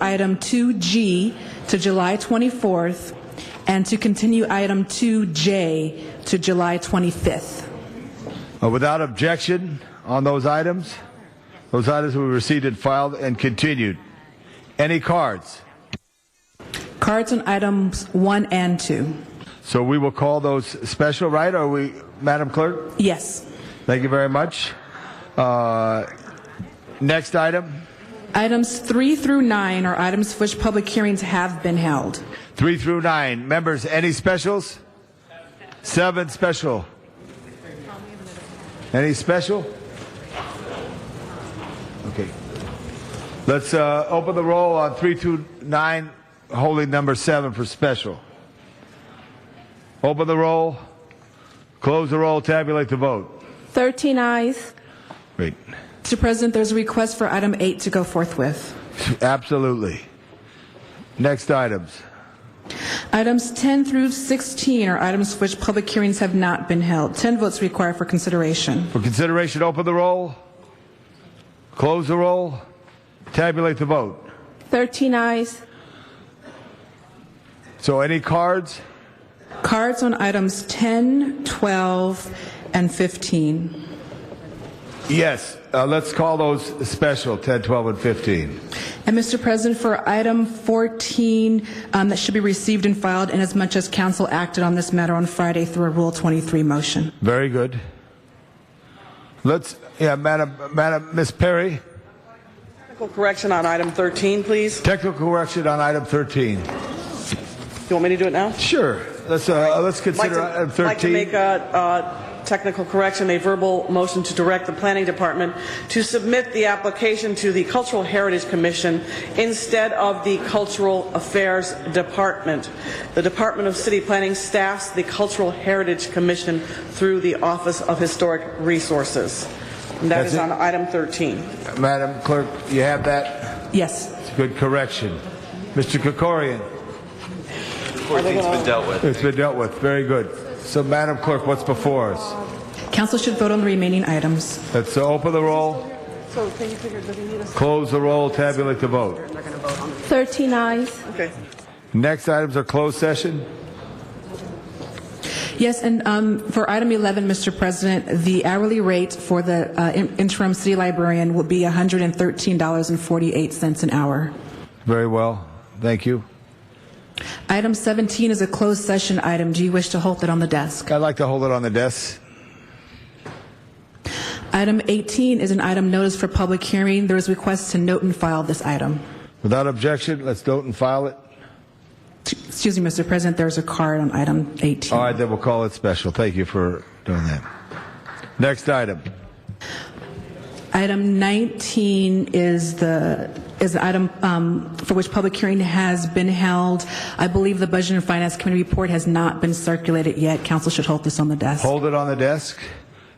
item 2G to July 24th and to continue item 2J to July 25th. Uh, Without objection on those items, those items will be received and filed and continued. Any cards? Cards on items 1 and 2. So we will call those special, right? Are we, Madam Clerk? Yes. Thank you very much. Uh, next item, Items 3 through 9 are items for which public hearings have been held. three through nine. Members, any specials? Seven special. Any special? Okay. Let's uh, open the roll on three through nine, holding number seven for special. Open the roll, close the roll, tabulate the vote. 13 eyes. Great. Mr. President, there's a request for item 8 to go forthwith. Absolutely. Next items. Items 10 through 16 are items for which public hearings have not been held. 10 votes required for consideration. For consideration, open the roll, close the roll, tabulate the vote. 13 eyes. So, any cards? Cards on items 10, 12, and 15. Yes. Uh, let's call those special 10, 12, and 15. And Mr. President, for item 14, um, that should be received and filed inasmuch as council acted on this matter on Friday through a Rule 23 motion. Very good. Let's, yeah, Madam, Madam, Miss Perry, Technical correction on item 13, please. technical correction on item 13. You want me to do it now? Sure. Let's, uh, let's Like consider to- item Like to 13. make a a technical correction, a verbal motion to direct the planning department to submit the application to the Cultural Heritage Commission instead of the Cultural Affairs Department. The Department of City Planning staffs the Cultural Heritage Commission through the Office of Historic Resources. And that That's is it? on item 13. Madam Clerk, you have that? Yes. It's a good correction. Mr. Kokorian, 14's been dealt with. it's been dealt with. Very good. So, Madam Clerk, what's before us? Council should vote on the remaining items. Let's uh, open the roll. Close the roll, tabulate the vote. 13 eyes. Okay. Next items are closed session. Yes, and um, for item 11, Mr. President, the hourly rate for the uh, in- interim city librarian will be $113.48 an hour. Very well. Thank you. Item 17 is a closed session item. Do you wish to hold it on the desk? I'd like to hold it on the desk. Item 18 is an item notice for public hearing. There is request to note and file this item. Without objection, let's note and file it. Excuse me, Mr. President, there's a card on item 18. All right, then we'll call it special. Thank you for doing that. Next item. Item 19 is the, is the item um, for which public hearing has been held. I believe the Budget and Finance Committee report has not been circulated yet. Council should hold this on the desk. Hold it on the desk.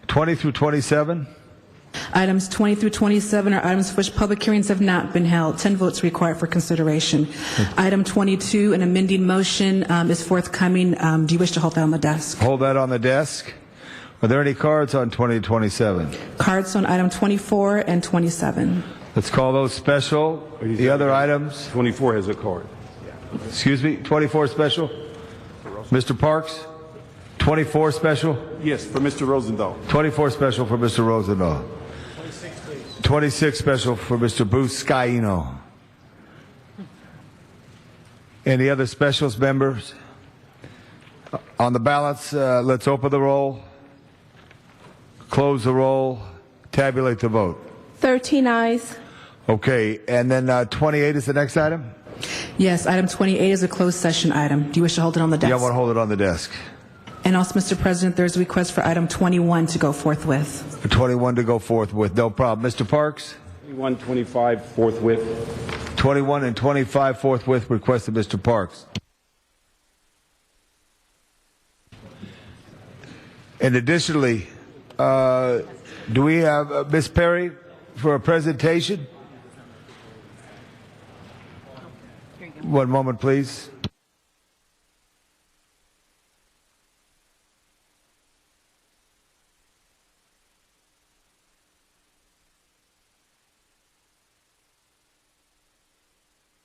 20 through 27. Items 20 through 27 are items for which public hearings have not been held. 10 votes required for consideration. Hmm. Item 22, an amending motion um, is forthcoming. Um, Do you wish to hold that on the desk? Hold that on the desk. Are there any cards on 20 to 27? Cards on item 24 and 27. Let's call those special. The other items. 24 has a card. Excuse me, 24 special? Mr. Parks? 24 special? Yes, for Mr. Rosendahl. 24 special for Mr. Rosendahl. 26 special for Mr. Buscaino. Any other specials, members? Uh, On the balance, uh, let's open the roll, close the roll, tabulate the vote. 13 eyes. Okay, and then uh, 28 is the next item? Yes, item 28 is a closed session item. Do you wish to hold it on the desk? Yeah, I want to hold it on the desk. And also, Mr. President, there's a request for item 21 to go forthwith. 21 to go forth with, no problem. Mr. Parks? 21, 25, forthwith. 21 and 25 forthwith requested Mr. Parks. And additionally, uh, do we have uh, Ms. Perry for a presentation? One moment, please.